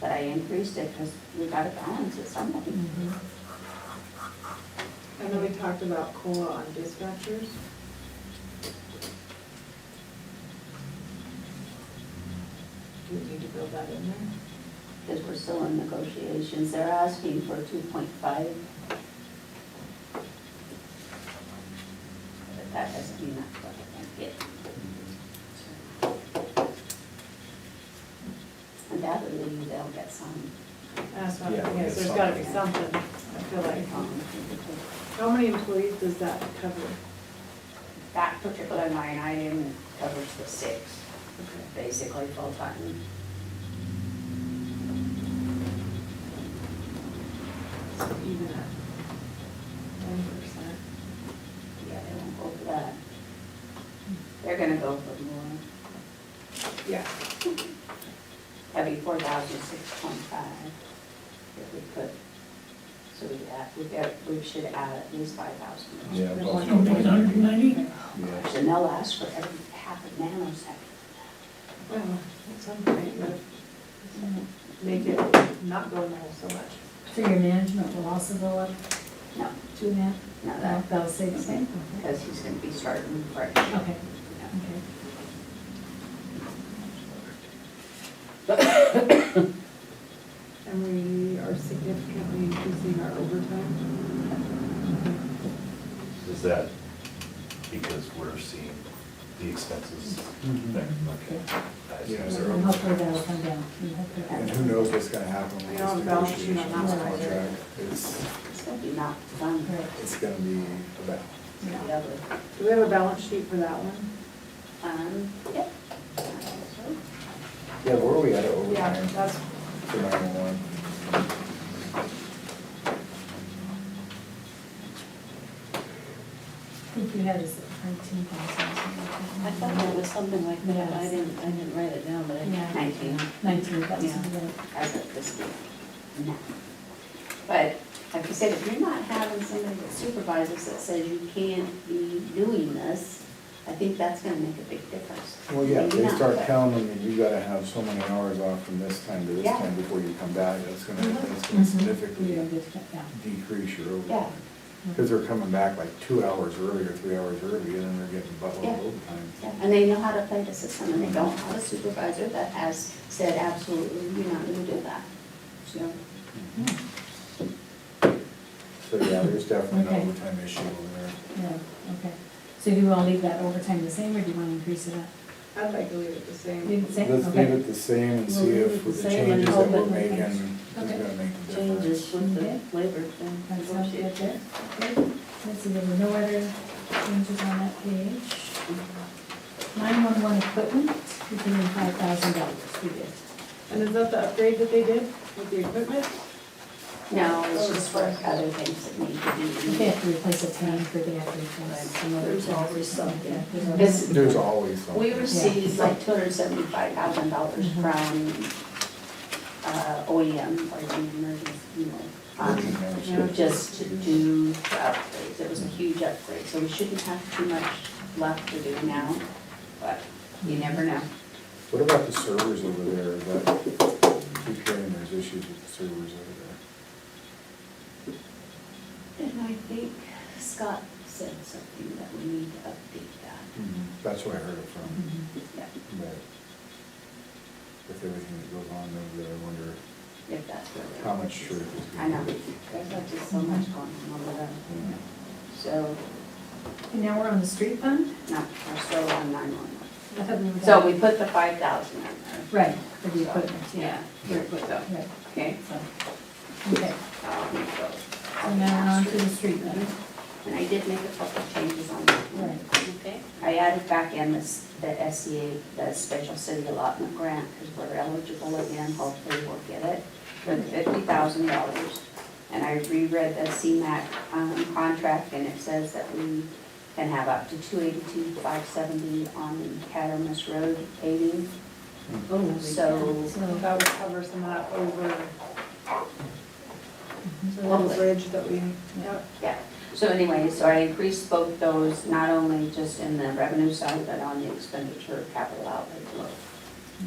they increased it, because we gotta balance it somehow. And then we talked about COLA on dispatchers. Do we need to build that in there? Because we're still in negotiations, they're asking for two point five. But that doesn't mean that's what I can get. Undoubtedly, they'll get some. That's what, Yeah, we yes, need there's gotta be something. something, I feel like. um, How many employees does that cover? That particular line item covers the six, basically full-time. So Even at one percent. Yeah, they won't go for that. They're gonna go for more. Yeah. That'd be four thousand six twenty-five if we put, so we add, we get, we should add at least five thousand. Yeah, well, One no, point it's nine. not. And Yeah. they'll ask for every half a nanosecond. Well, at some point, but make it not go in there so much. So your management will also go up No, two and a half, no, that, about about six? Uh, Okay. because he's gonna be starting fresh. Okay, Yeah. okay. And we are significantly increasing our overtime. Is that because we're seeing the expenses there? Okay. I see. Yeah. Is there And a- hopefully that'll come down. And hopefully And that'll- who knows what's gonna happen We with don't this have a balance sheet negotiation on on this that one, right? contract? It's, It's gonna be not fun Right. for it's gonna be about, the other. Do we have a balance sheet for that one? Um, yep. yeah, where are we at Yeah, overtime that's, for nine-one-one? I think you had us at nineteen thousand. I thought that was something like that, I Yes. didn't, I didn't write it down, but I. Yeah. Nineteen. Nineteen thousand, Yeah. right. as of this week. No. But like you said, if you're not having somebody that supervises that says you can't be doing this, I think that's gonna make a big difference. Well, yeah, Maybe they not, start but- counting, and you gotta have so many hours off from this time to this Yeah. Mm-hmm. time before you come back, that's gonna, that's Mm-hmm. gonna You don't significantly get to cut down. decrease your Yeah. overtime. Because they're coming back like two hours early or three hours early, and then they're getting buttload Yeah. of overtime. Yeah, And they know how to play the system, and they don't have a supervisor that has said absolutely, you're not gonna do that. So, So, yeah, there's definitely Okay. an overtime issue over there. Yeah, okay. So do you want to leave that overtime the same, or do you want to increase it up? I'd like to leave it the Leave same. it the same? Let's leave Okay. it the same and We'll see leave if it the with the same and changes that hope it we're making, makes- is Okay. gonna make a difference. Changes with Okay. the labor thing. That sounds good there. Okay. Let's see, there were no other changes on that page. Nine-one-one equipment, we put in five thousand dollars, we did. And is that the upgrade that they did with the equipment? no, it's just for other things that need to If be. They have to replace a tank or they have to replace some other. There's always something. Yeah, there's always- This, There's always something. We received like two hundred seventy-five thousand dollars from, uh, OEM, or the emergency, you know, um, Yeah. just to do the upgrades, it was a huge upgrade, so we shouldn't have too much left to do now, but you never know. What about the servers over there, Is that, keep hearing there's issues with the servers over And I think Scott said something that we need to update there. Mm-hmm. That's where I heard it from, Mhm. that, but with everything that goes on over there, I wonder yeah, if that's where we're. how much truth is. I being- know, there's like just so much going on over there, Yeah. so, And now we're on the street fund? no, we're still on nine-one-one. I thought we were So done. we put the five thousand in there. Right, for the equipment, yeah. Here we go. Right, Okay. so, okay, so So now we're on to the street fund. And I did make a couple changes on that one. Okay. I added back in this, the SCA, the special city allotment grant, because we're eligible again, hopefully we'll get it, for the fifty thousand dollars. And I reread the CMAC, um, contract, and it says that we can have up to two eighty-two, five seventy on the Cattermas Road paving. Oh, So So, That would cover some of that over, Well, over bridge that we, yep. Yeah, so anyway, so I increased both those, not only just in the revenue side, but on the expenditure capital outlay. below.